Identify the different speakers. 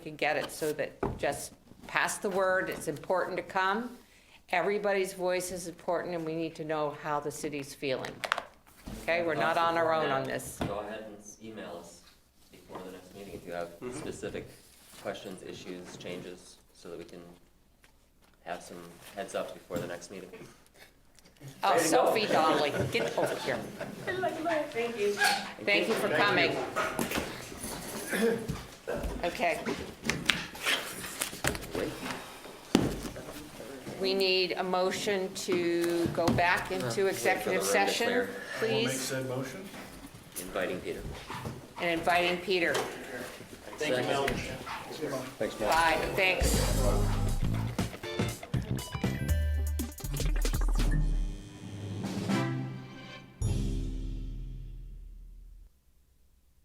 Speaker 1: could get it so that just pass the word, it's important to come. Everybody's voice is important and we need to know how the city's feeling. Okay, we're not on our own on this.
Speaker 2: Go ahead and s- email us before the next meeting if you have specific questions, issues, changes, so that we can have some heads up before the next meeting.
Speaker 1: Oh, Sophie Donnelly, get over here.
Speaker 3: Thank you.
Speaker 1: Thank you for coming. Okay. We need a motion to go back into executive
Speaker 2: Wait for the room to
Speaker 1: session,
Speaker 2: clear.
Speaker 4: We'll make
Speaker 1: please,
Speaker 4: said motion.
Speaker 2: Inviting Peter.
Speaker 1: and inviting Peter.
Speaker 2: Thank you,
Speaker 1: Bye, thanks.